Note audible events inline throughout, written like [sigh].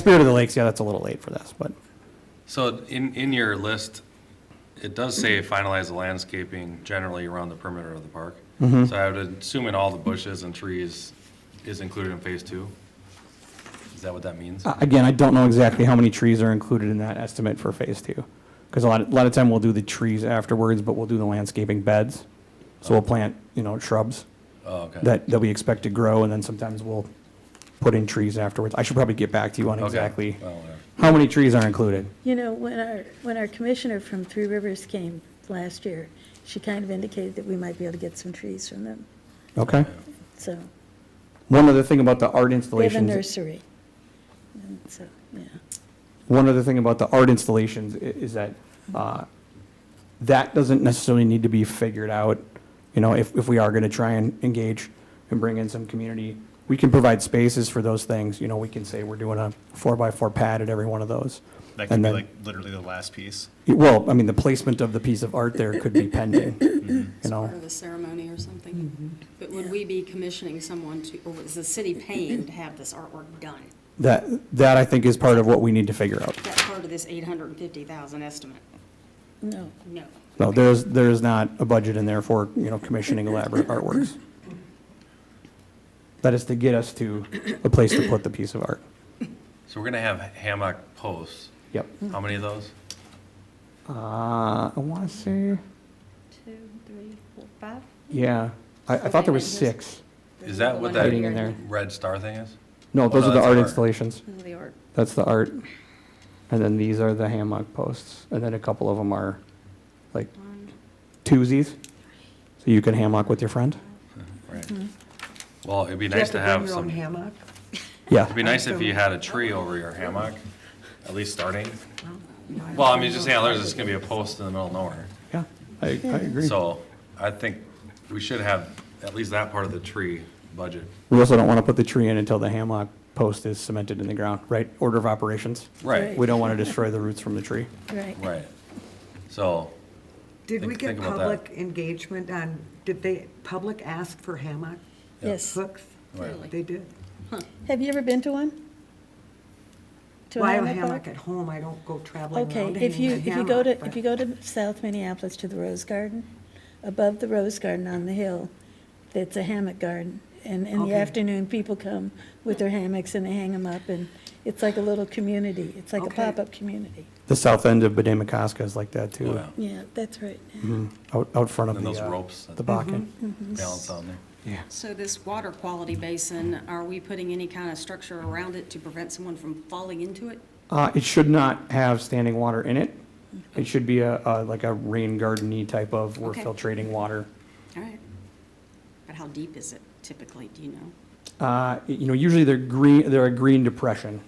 Spirit of the Lakes, yeah, that's a little late for this, but So in, in your list, it does say finalize the landscaping generally around the perimeter of the park. Mm-hmm. So I would assume in all the bushes and trees is included in phase two? Is that what that means? uh, again, I don't know exactly how many trees are included in that estimate for phase two. Because a lot, a lot of time we'll do the trees afterwards, but we'll do the landscaping beds. So we'll plant, you know, shrubs Oh, okay. that, that we expect to grow, and then sometimes we'll put in trees afterwards. I should probably get back to you on Okay. exactly Well, whatever. how many trees are included. You know, when our, when our commissioner from Three Rivers came last year, she kind of indicated that we might be able to get some trees from them, Okay? so, One other thing about the art they have a installations. nursery. And So, yeah, One other thing about the art installations i- is that uh, that doesn't necessarily need to be figured out. You know, if, if we are going to try and engage and bring in some community, we can provide spaces for those things. You know, we can say we're doing a four-by-four pad at every one of those. That And could be then- like literally the last piece. Well, I mean, the placement of the piece of art there could be [coughs] pending, Mm-hmm. you know? part of a ceremony or something. But would we be commissioning someone to, or is the city paying to have this artwork done? That, that I think is part of what we need to figure out. That's part of this eight hundred and fifty thousand estimate? no, No. No, there's, there is not a budget in there for, you know, commissioning elaborate artworks. That is to get us to a place to put the piece of art. So we're gonna have hammock posts. Yep. How many of those? Uh, I want to say, two, three, four, five. yeah, I, I thought there was six. Is that what that Hiding in there. red star thing is? No, those Oh, are the that's art art. installations. Those are the art. That's the art. And then these are the hammock posts, and then a couple of them are like twosies. So you can hammock with your friend? Right. Well, it'd be Do you nice to have bring your own some, it'd hammock? Yeah. be nice if you had a tree over your hammock, at least starting. Well, I mean, just, yeah, there's just gonna be a post in the middle of nowhere. Yeah, I, I agree. So I think we should have at least that part of the tree budget. We also don't want to put the tree in until the hammock post is cemented in the ground, right? Order of operations. Right. We don't want to destroy the roots from the tree. right. Right. So, Did we Think- get think about that. public engagement on, did they, public ask for hammock Yes. hooks? Really? They did. Have you ever been to one? To a Well, I have a hammock hammock bar? at home, I don't go traveling around Okay, hanging if you, a if you go to, hammock, if but- you go to South Minneapolis to the Rose Garden, above the Rose Garden on the hill, it's a hammock garden. And in the Okay. afternoon, people come with their hammocks and they hang them up and it's like a little community. It's like a Okay. pop-up community. The south end of Bedemecoska is like that oh, too. yeah, Yeah, that's right. Out, out front of And the, those uh, ropes. the Bakken. balance on there. Yeah. So this water quality basin, are we putting any kind of structure around it to prevent someone from falling into it? Uh, it should not have standing water in it. It should be a, a, like a rain garden-y type of, we're Okay. filtrating water. All right. But how deep is it typically, do you know? Uh, you know, usually they're green, they're a green depression.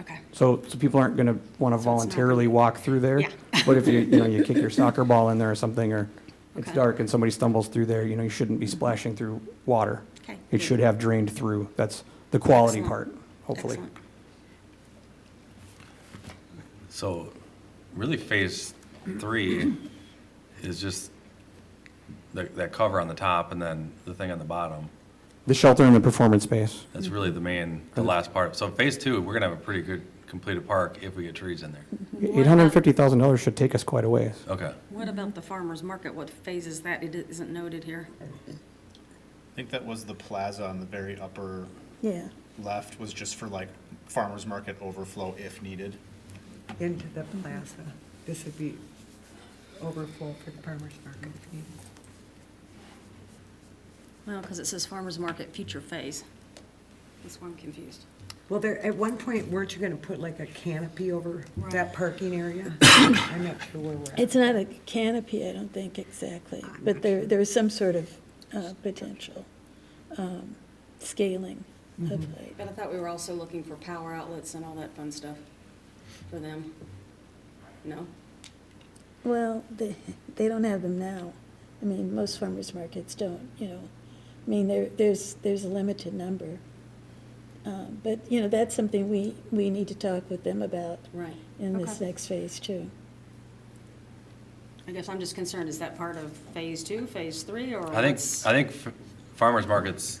Okay. So, so people aren't gonna wanna So it's not- voluntarily walk through there. Yeah. But if you, you know, you kick your soccer ball in there or something, or it's Okay. Mm-hmm. dark and somebody stumbles through there, you know, you shouldn't be splashing through water. Okay. It should have drained through. That's the quality Excellent. part, hopefully. Excellent. So really phase three is just that, that cover on the top and then the thing on the bottom. The shelter and the performance space. That's really the main, the last part. So phase two, we're gonna have a pretty good completed park if we get trees in there. Eight hundred and fifty thousand dollars should take us quite a ways. Okay. What about the farmer's market? What phase is that? It isn't noted here. I think that was the plaza on the very upper Yeah. left was just for like farmer's market overflow if needed. Into the plaza. This would be overflow for the farmer's market. if needed. Well, because it says farmer's market future phase. That's why I'm confused. Well, there, at one point, weren't you gonna put like a canopy over that Right. parking [coughs] area? I'm not sure where we're at. It's not a canopy, I don't think exactly, but there, there is some sort of uh, potential um, scaling of height. But I thought we were also looking for power outlets and all that fun stuff for them. No? Well, they, they don't have them now. I mean, most farmers markets don't, you know. I mean, there, there's, there's a limited number. Um, But, you know, that's something we, we need to talk with them about Right. in this Okay. next phase too. I guess I'm just concerned, is that part of phase two, phase three, or? I think, what's- I think f- farmers markets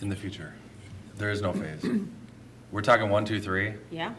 in the future. There is no phase. We're talking one, two, three. Yeah?